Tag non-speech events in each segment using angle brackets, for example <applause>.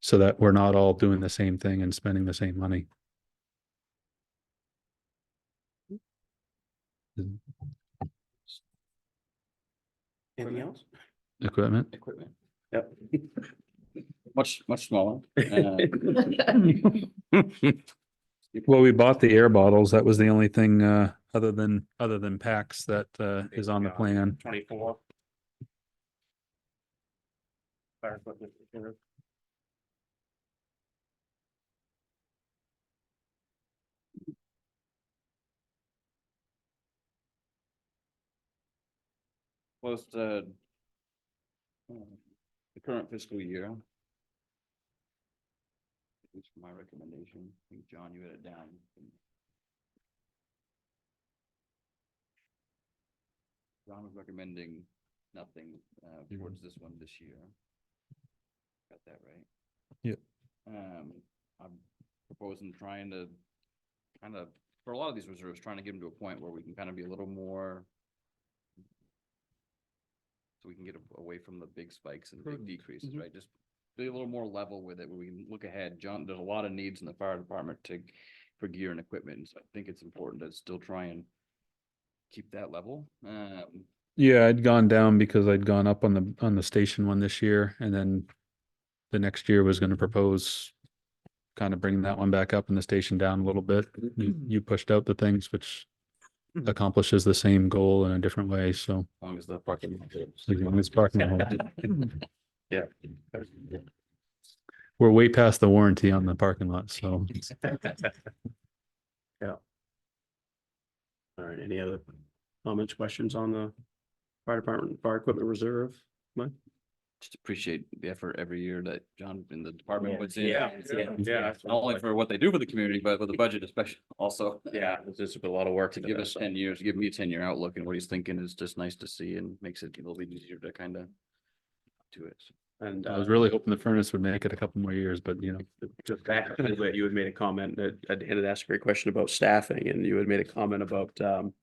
so that we're not all doing the same thing and spending the same money. Anything else? Equipment, Equipment. Yep. <laughs> much, much smaller. Uh, well, we bought the air bottles. That was the only thing, uh, other than, other than packs that, uh, is on the plan. <laughs> Twenty-four. Fire equipment. reserve. Was the um, the current fiscal year. At least for my recommendation, I think John, you had it down. John was recommending nothing uh, towards this one this year. Got that right? Yep. Um, I'm proposing trying to kind of, for a lot of these reserves, trying to get them to a point where we can kind of be a little more so we can get a- away from the big spikes and big Prudent. decreases, Mm-hmm. Mhm. right? Just be a little more level with it, where we can look ahead. John, there's a lot of needs in the fire department to, for gear and equipment, and so I think it's important to still try and keep that level. Um, Yeah, I'd gone down because I'd gone up on the, on the station one this year and then the next year was gonna propose kind of bringing that one back up and the station down a little bit. You, Hmm. you pushed out the things which accomplishes the same goal in a different way, so. as long as the parking. lot is- as long as parking lot- Yeah. We're way past the warranty on the parking lot, so. Yeah. All right, any other comments, questions on the fire department, fire equipment reserve? Just appreciate the effort every year that John and the department puts in. uh, Yeah, yeah. Not only for what they do for the community, but for the budget especially also. Yeah, it's just a lot of work To give us ten years, give me a ten year outlook and what he's thinking is just nice to see and makes it a little bit easier to kind of do it. And I uh, was really hoping the furnace would make it a couple more years, but you know, just back to what you had made a comment that I had asked a great question about staffing and you had made a comment about um.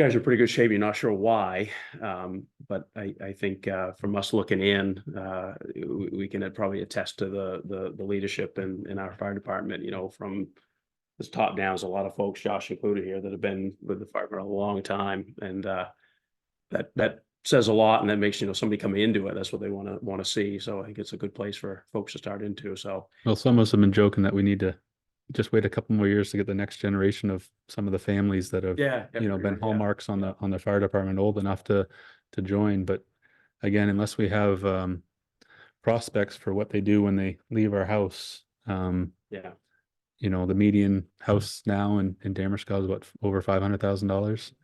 You guys are in pretty good shape. You're not sure why, um, but I I think uh from us looking in, uh, we we can probably attest to the the the leadership in in our fire department, you know, from. This top down is a lot of folks, Josh included here, that have been with the fire for a long time and uh. That that says a lot and that makes, you know, somebody coming into it, that's what they want to want to see. So I think it's a good place for folks to start into, so. well, some of us have been joking that we need to just wait a couple more years to get the next generation of some of the families that have, Yeah. you know, been yeah. hallmarks on the, on the fire department old enough to, to join. But again, unless we have, um, prospects for what they do when they leave our house, um, Yeah, you know, the median house now in, in Damerska is what, f- over five hundred thousand dollars?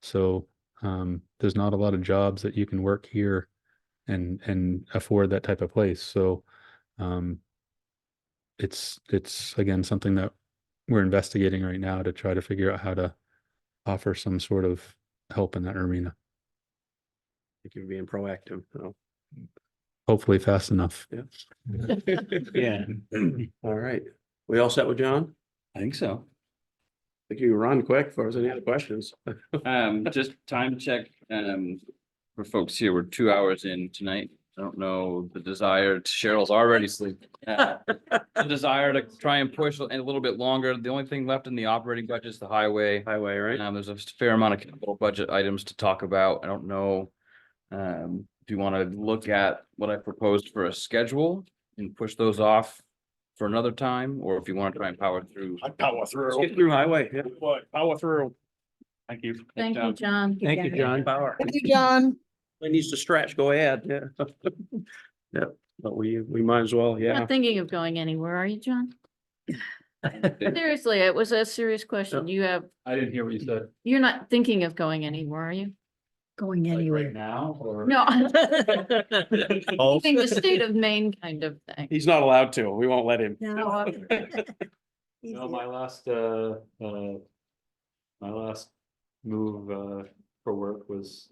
So, um, there's not a lot of jobs that you can work here and, and afford that type of place, so, um, it's, it's again, something that we're investigating right now to try to figure out how to offer some sort of help in that arena, if you're being proactive, so. hopefully fast enough. Yeah. <clears throat> All right. We all set with John? I think so. I think you run quick for us. Any other questions? Um, just time check, um, for folks here, we're two hours in tonight. I don't know the desire, Cheryl's already <laughs> sleeping. Uh, The desire to try and push a little bit longer. The only thing left in the operating budget is the highway. Highway, right? Um, there's a fair amount of capital budget items to talk about. I don't know. Um, do you want to look at what I proposed for a schedule and push those off for another time, or if you want to try and power through? I power Let's Get through. through highway. yeah. What, power through. Thank you. Thank you, John. Thank you, John. Power. Thank you, John. It needs to stretch. Go ahead. Yeah. <laughs> Yeah, but we, we might as well, You're <laughs> yeah. Not thinking of going anywhere, are you, John? Seriously, it was a serious question. You have, I didn't hear what you said. you're not thinking of going anywhere, are you? going anywhere. now, or? No. <laughs> Oh, Leaving the state of Maine kind of thing. He's not allowed to. We won't let him. No. <laughs> <laughs> No, my last, uh, uh, my last move, uh, for work was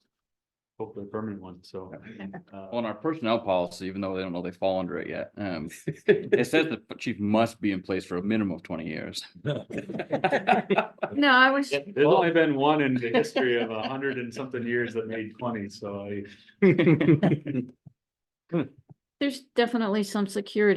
hopefully a permanent one, so. uh, <laughs> On our personnel policy, even though they don't know they fall under it yet, um, it says the chief must be in place for a minimum of twenty years. <laughs> No, I was, There's only been one in the history of a hundred and something years that made twenty, so I. there's definitely some security